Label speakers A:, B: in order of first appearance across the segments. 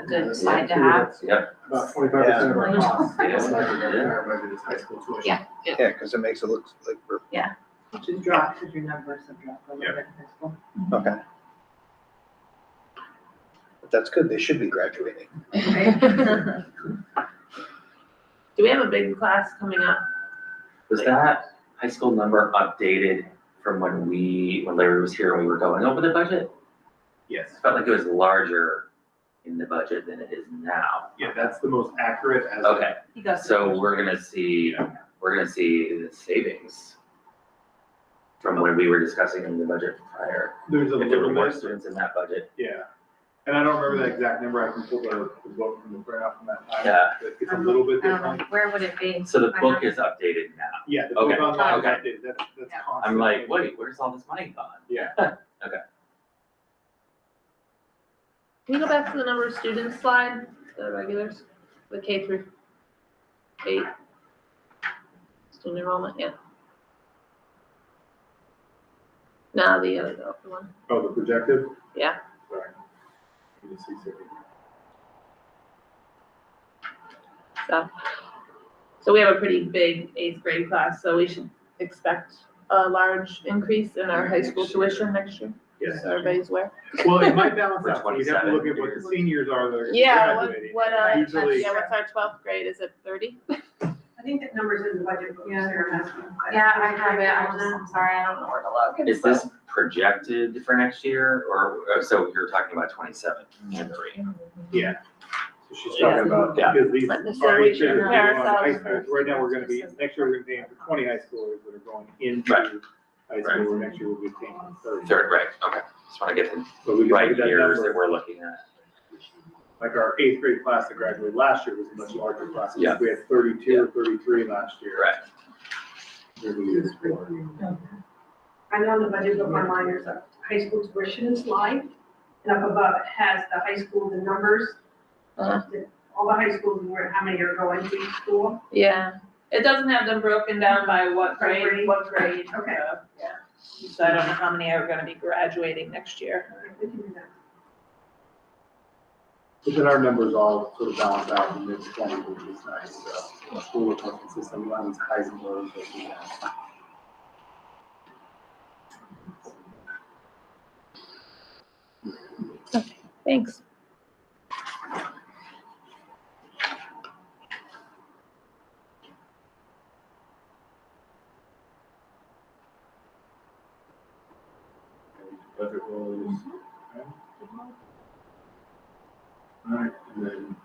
A: a good side to have.
B: Yep.
C: About twenty-five percent of our
A: Yeah.
C: costs.
B: Yeah.
C: is like our budget is high school tuition.
A: Yeah.
D: Yeah, because it makes it look like we're,
E: Just drop, because your numbers have dropped a little bit in high school.
D: okay. But that's good, they should be graduating.
A: Do we have a big class coming up?
B: Was that high school number updated from when we, when Larry was here, and we were going over the budget?
C: Yes,
B: It felt like it was larger in the budget than it is now.
C: yeah, that's the most accurate as.
B: Okay,
E: He got
B: so we're gonna see, we're gonna see the savings from when we were discussing in the budget prior.
C: There's a
B: If there were
C: little
B: more
C: bit,
B: students in that budget,
C: yeah. And I don't remember the exact number, I can pull the, the book from the graph from that time.
B: Yeah.
C: But It's a little bit
A: Um,
C: different.
A: where would it be?
B: so the
A: I
B: book is updated now.
C: Yeah, the book
B: Okay,
C: online,
B: okay.
C: that did, that's, that's
A: Yeah.
C: constant.
B: I'm like, wait, where's all this money gone?
C: Yeah.
A: Can we go back to the number of students slide, the regulars, the K through eight? Student enrollment, yeah. No, the other, the other one.
C: Oh, the projected?
A: Yeah.
C: Sorry. Give me two seconds.
A: So, so we have a pretty big eighth grade class, so we should expect a large increase in our high school tuition next year.
C: Yes.
A: So everybody's aware.
C: Well, it might balance
B: For
C: out, so you'd have to
B: 27
C: look at what the
B: years.
C: seniors are that are
A: Yeah, what,
C: graduating.
A: what, uh,
C: Usually-
A: yeah, what's our twelfth grade? Is it thirty?
E: I think that number's in the budget book,
F: Yeah.
E: Sarah has one.
A: I'm sorry, I don't know where to look.
B: Is this projected for next year or, oh, so you're talking about twenty-seven and three?
C: Yeah. So she's
A: Yeah.
C: talking about,
B: Yeah.
C: because these
A: But
C: are
A: this year we
C: each year
A: should
C: that
A: prepare
C: we want high
A: ourselves
C: schools.
A: for-
C: Right now, we're gonna be, next year, we're gonna be paying for twenty high schoolers that are going
B: Right.
C: into high school, and next year we'll be paying for thirty.
B: Third, right, okay. Just wanna get the
C: But we can
B: right
C: look at that
B: years that
C: number,
B: we're looking at.
C: like our eighth grade class that graduated last year was a much larger class, I think
B: Yeah.
C: we had thirty-two or thirty-three last year.
B: Right.
C: There's a year before.
F: I know in the budget book online, there's a high school tuition slide, and up above it has the high school, the numbers.
A: Uh-huh.
F: the- All the high schools, and where, how many are going to each school.
A: Yeah, it doesn't have them broken down by what
F: By
A: grade,
F: grade.
A: what grade.
F: Okay.
A: so, So I don't know how many are gonna be graduating next year.
F: We can do that.
C: But then our numbers all sort of balance out in mid twenty, which is nice, so a school with more consistent, we don't have these highs and lows that we have.
A: Thanks.
C: Budget rules. Alright, and then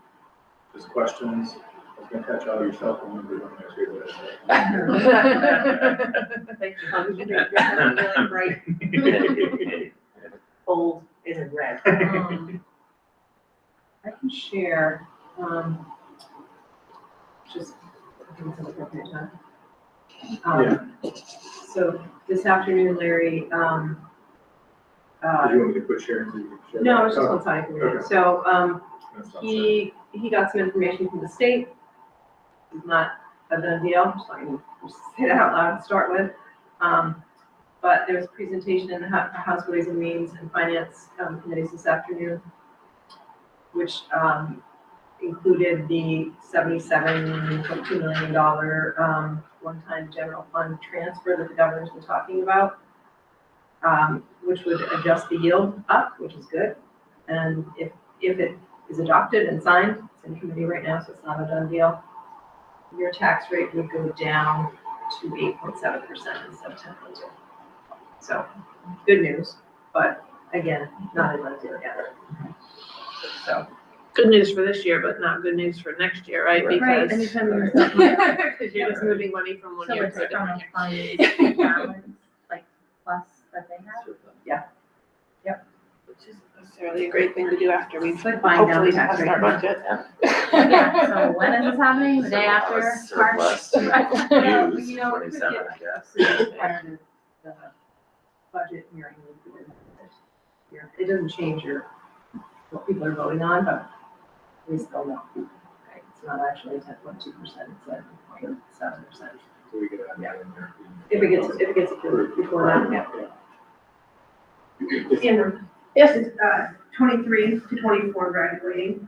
C: just questions, I was gonna catch all your cell phone numbers on there too, but.
A: Thank you.
E: Really bright, bold, and in red.
A: Um,
E: I can share, um, just, I think it's an appropriate time. Um, So this afternoon, Larry, um,
C: Did you
E: uh,
C: want me to quit sharing? so you can share?
E: no, it's just
C: Oh,
E: one side
C: Okay.
E: So, um,
C: that's not sharing.
E: He, he got some information from the state. It's not a done deal, just like, just say that out loud to start with. Um, but there was a presentation in the Hou- House Ways and Means and Finance um, Committees this afternoon, which, um, included the seventy-seven point two million dollar, um, one-time general fund transfer that the governor's been talking about, um, which would adjust the yield up, which is good. And if, if it is adopted and signed, it's in committee right now, so it's not a done deal, your tax rate would go down to eight point seven percent instead of ten point two. So, good news, but again, not a done deal yet. So.
A: Good news for this year, but not good news for next year, right?
E: Right,
A: Because.
E: anytime you're.
A: Because you're just moving money from one
G: So
A: year
G: it's
A: to a
G: from
A: different.
G: a fund balance, like plus that they have?
A: Which isn't necessarily a great thing to do after we
E: It's like buying down the
A: hopefully
E: tax
A: passed our
E: rate.
A: budget.
G: Yeah, so when is this happening? The day
B: So
G: after
B: that was
G: March?
B: surplus
G: You
B: to use,
G: know, we could
B: twenty-seven,
G: get-
B: I guess.
E: Budget hearing would be in this year. It doesn't change your, what people are voting on, but we still know. Right, It's not actually ten point two percent, it's at point seven percent.
C: So we could add that in there.
E: If it gets, if it gets approved before that, yeah.
C: Yeah.
F: In the
A: Yes,
F: It's, uh, twenty-three to twenty-four graduating,